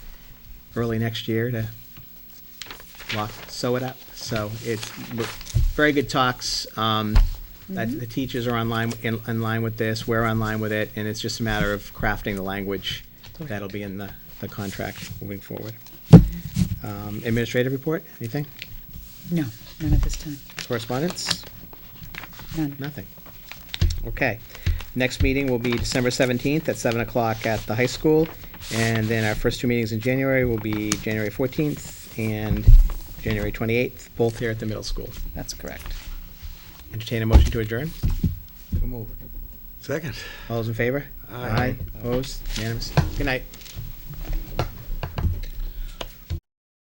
early next year to lock, sew it up. So it's w- very good talks. Um, that- The teachers are online, in in line with this, we're online with it, and it's just a matter of crafting the language that'll be in the, the contract moving forward. Um, Administrative report, anything? No, none at this time. Correspondence? None. Nothing. Okay. Next meeting will be December 17th at 7 o'clock at the high school. And then our first two meetings in January will be January 14th and January 28th, both here at the middle school. That's correct. Entertain a motion to adjourn. Second. All those in favor? Aye. Opposed? Unanimous? Good night.